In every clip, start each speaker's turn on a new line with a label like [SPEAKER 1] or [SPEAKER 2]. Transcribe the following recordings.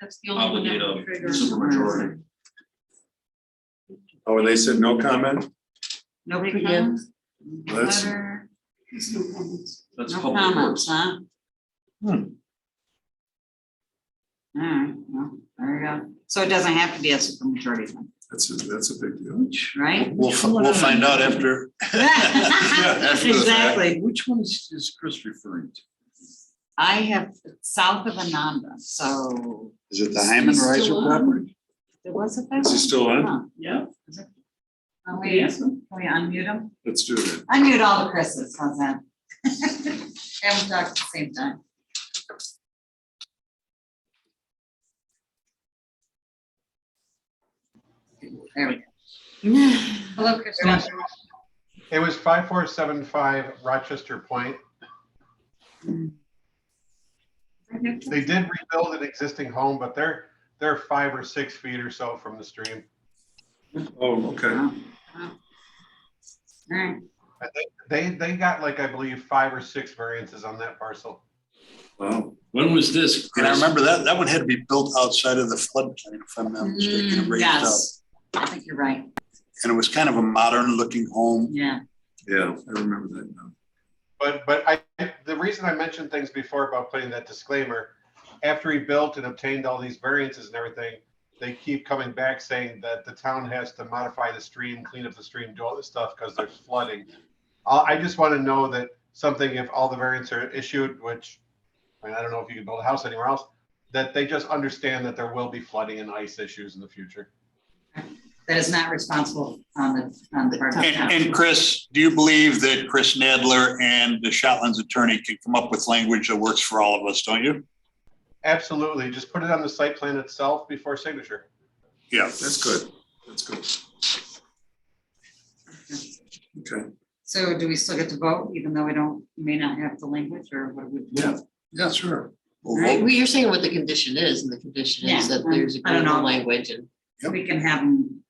[SPEAKER 1] That's the only one that would
[SPEAKER 2] Obligate
[SPEAKER 1] trigger.
[SPEAKER 2] a supermajority.
[SPEAKER 3] Oh, and they said no comment?
[SPEAKER 4] No
[SPEAKER 1] Public
[SPEAKER 4] preemptive,
[SPEAKER 1] comments,
[SPEAKER 3] That's-
[SPEAKER 1] letter. There's no comments.
[SPEAKER 2] That's
[SPEAKER 4] no
[SPEAKER 2] public
[SPEAKER 4] comments,
[SPEAKER 2] works.
[SPEAKER 4] huh?
[SPEAKER 3] Hmm.
[SPEAKER 4] All right, well, there you go. So it doesn't have to be a supermajority, then,
[SPEAKER 3] That's, a that's a big deal.
[SPEAKER 4] right?
[SPEAKER 5] We'll, fi- we'll find out after. after the fact.
[SPEAKER 4] Exactly.
[SPEAKER 2] Which one is, is Chris referring to?
[SPEAKER 4] I have south of Ananda, so
[SPEAKER 5] Is it the Hyman Riser property?
[SPEAKER 4] there was a. fact.
[SPEAKER 3] Is he still on?
[SPEAKER 1] Oh,
[SPEAKER 4] Huh. Oh,
[SPEAKER 2] Yeah.
[SPEAKER 4] Can we, can we unmute him?
[SPEAKER 3] Let's do it.
[SPEAKER 4] Unmute all the Chris's, how's that? And we'll talk at the same time. There we go.
[SPEAKER 1] Hello, Kristen.
[SPEAKER 6] It was five four seven five Rochester Point. They did rebuild an existing home, but they're, they're five or six feet or so from the stream.
[SPEAKER 3] Oh, okay.
[SPEAKER 4] Wow. Wow. All right,
[SPEAKER 6] They, they got like, I believe, five or six variances on that parcel.
[SPEAKER 3] Wow.
[SPEAKER 2] When was this?
[SPEAKER 5] And I
[SPEAKER 2] Chris?
[SPEAKER 5] remember that, that one had to be built outside of the floodplain, if I'm not mistaken, and
[SPEAKER 4] Mm,
[SPEAKER 5] raised up.
[SPEAKER 4] yes, I think you're right,
[SPEAKER 5] And it was kind of a modern looking home.
[SPEAKER 4] yeah.
[SPEAKER 3] Yeah, I remember that now.
[SPEAKER 6] But, but I, the reason I mentioned things before about putting that disclaimer, after he built and obtained all these variances and everything, they keep coming back saying that the town has to modify the stream, clean up the stream, do all this stuff because there's flooding. Uh, I, I just want to know that something, if all the variants are issued, which, I mean, I don't know if you can build a house anywhere else, that they just understand that there will be flooding and ice issues in the future.
[SPEAKER 4] That is not responsible on the, on the part of the
[SPEAKER 5] And, and
[SPEAKER 4] town.
[SPEAKER 5] Chris, do you believe that Chris Nadler and the Shotlands attorney can come up with language that works for all of us, don't you?
[SPEAKER 6] Absolutely, just put it on the site plan itself before signature.
[SPEAKER 5] Yeah.
[SPEAKER 3] That's good. That's good. Okay.
[SPEAKER 4] So do we still get to vote, even though we don't, may not have the language, or what would?
[SPEAKER 3] Yeah. Yeah, sure.
[SPEAKER 5] We'll
[SPEAKER 4] Right.
[SPEAKER 5] vote.
[SPEAKER 7] Well, you're saying what the condition is, and the condition is
[SPEAKER 4] Yeah,
[SPEAKER 7] that there's
[SPEAKER 4] I don't
[SPEAKER 7] agreement
[SPEAKER 4] know.
[SPEAKER 7] language, and
[SPEAKER 4] We can have them.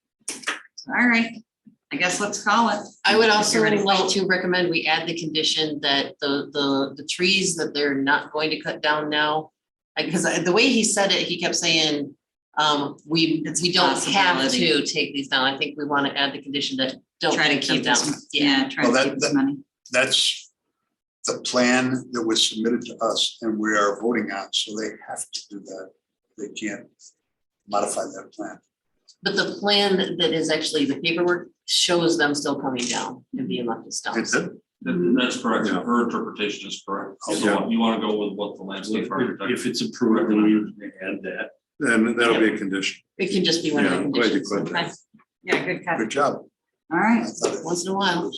[SPEAKER 4] All right, I guess let's call it.
[SPEAKER 7] I would also
[SPEAKER 4] You're ready.
[SPEAKER 7] like to recommend we add the condition that the, the, the trees that they're not going to cut down now. Because the way he said it, he kept saying, um, we,
[SPEAKER 4] It's a
[SPEAKER 7] we don't have
[SPEAKER 4] possibility.
[SPEAKER 7] to take these down, I think we want to add the condition that don't
[SPEAKER 4] Try to
[SPEAKER 7] take them
[SPEAKER 4] keep
[SPEAKER 7] down.
[SPEAKER 4] this, yeah, try
[SPEAKER 5] Well,
[SPEAKER 4] to
[SPEAKER 5] that-
[SPEAKER 4] keep this money.
[SPEAKER 5] That's the plan that was submitted to us and we are voting on, so they have to do that. They can't modify that plan.
[SPEAKER 7] But the plan that is actually the paperwork shows them still coming down and being left as stumps.
[SPEAKER 5] That's it.
[SPEAKER 4] Mm-hmm.
[SPEAKER 2] That- That's correct.
[SPEAKER 3] Yeah.
[SPEAKER 2] Her interpretation is correct.
[SPEAKER 3] Yeah.
[SPEAKER 2] So you want to go with what the landscape architect.
[SPEAKER 8] If it's approved, then we add that.
[SPEAKER 3] Then that'll be a condition.
[SPEAKER 7] It can just be one of the
[SPEAKER 3] Yeah, I'm glad you
[SPEAKER 7] conditions.
[SPEAKER 3] put that.
[SPEAKER 4] Yeah, good cut,
[SPEAKER 5] Good job.
[SPEAKER 4] all
[SPEAKER 5] I
[SPEAKER 4] right.
[SPEAKER 5] thought it-
[SPEAKER 7] Once in a while.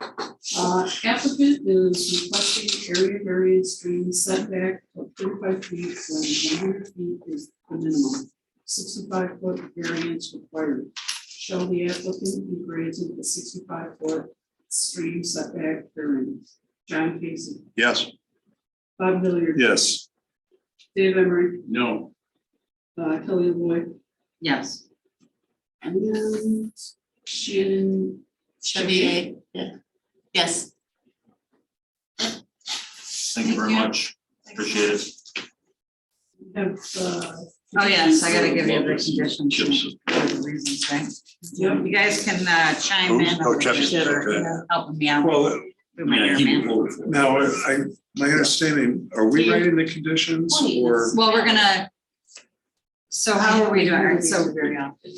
[SPEAKER 9] Uh, applicant is requesting area variance stream setback of thirty-five feet when one hundred feet is the minimum. Sixty-five foot variance required. Shall the applicant be granted a sixty-five foot stream setback variance? John Casey,
[SPEAKER 5] Yes.
[SPEAKER 9] Bob Hilliard,
[SPEAKER 3] Yes.
[SPEAKER 9] Dave Emery,
[SPEAKER 8] No.
[SPEAKER 9] uh, Kelly Lloyd,
[SPEAKER 4] Yes.
[SPEAKER 9] and then Shannon.
[SPEAKER 7] Chevier, yeah. Yes.
[SPEAKER 2] Thank you very much. Appreciate it.
[SPEAKER 9] Have, uh.
[SPEAKER 4] Oh, yes, I gotta give you the
[SPEAKER 5] Chips.
[SPEAKER 4] conditions. the Reasons, right?
[SPEAKER 9] Yep.
[SPEAKER 4] You guys can uh, chime in.
[SPEAKER 5] Oh,
[SPEAKER 4] over here
[SPEAKER 5] Jeff's
[SPEAKER 4] for Helping me out.
[SPEAKER 3] Well,
[SPEAKER 4] with my hair, man.
[SPEAKER 3] now, I, my understanding, are we writing the conditions or,
[SPEAKER 4] Well, we're gonna. So how are we doing? All right, So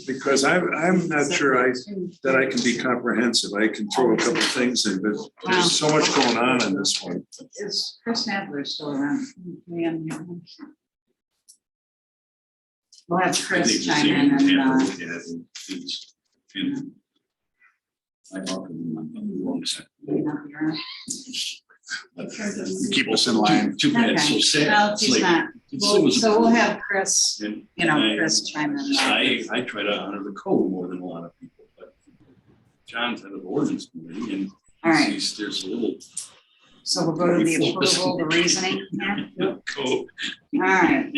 [SPEAKER 3] because I'm, I'm not sure I, that I can be comprehensive. I can throw a couple things in, but there's so much going on in this one.
[SPEAKER 4] is Chris Nadler still around? Yeah, yeah. We'll have Chris chime in and uh,
[SPEAKER 8] I often, I'm wrong side.
[SPEAKER 4] may not be around.
[SPEAKER 5] Keep us in line.
[SPEAKER 8] Too bad, so sad.
[SPEAKER 4] No,
[SPEAKER 8] It's
[SPEAKER 4] she's
[SPEAKER 8] like,
[SPEAKER 4] not.
[SPEAKER 8] it's so
[SPEAKER 4] Well,
[SPEAKER 8] was-
[SPEAKER 4] So we'll have Chris,
[SPEAKER 8] And
[SPEAKER 4] you know,
[SPEAKER 8] I-
[SPEAKER 4] Chris chime in.
[SPEAKER 8] I, I try to honor the code more than a lot of people, but John's head of the ordinance committee and
[SPEAKER 4] All right,
[SPEAKER 8] sees there's a little
[SPEAKER 4] so we'll go to the
[SPEAKER 8] Before this-
[SPEAKER 4] approval, the reasoning here.
[SPEAKER 8] code.
[SPEAKER 4] All right,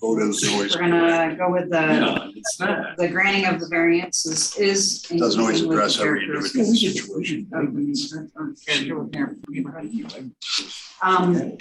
[SPEAKER 5] Vote is always.
[SPEAKER 4] we're gonna go with the,
[SPEAKER 8] Yeah, it's not.
[SPEAKER 4] the granting of the variances is. in
[SPEAKER 5] Doesn't always
[SPEAKER 4] keeping with the
[SPEAKER 5] address every individual
[SPEAKER 4] uh, characteristics
[SPEAKER 5] situation.
[SPEAKER 4] of the neighborhood. Um,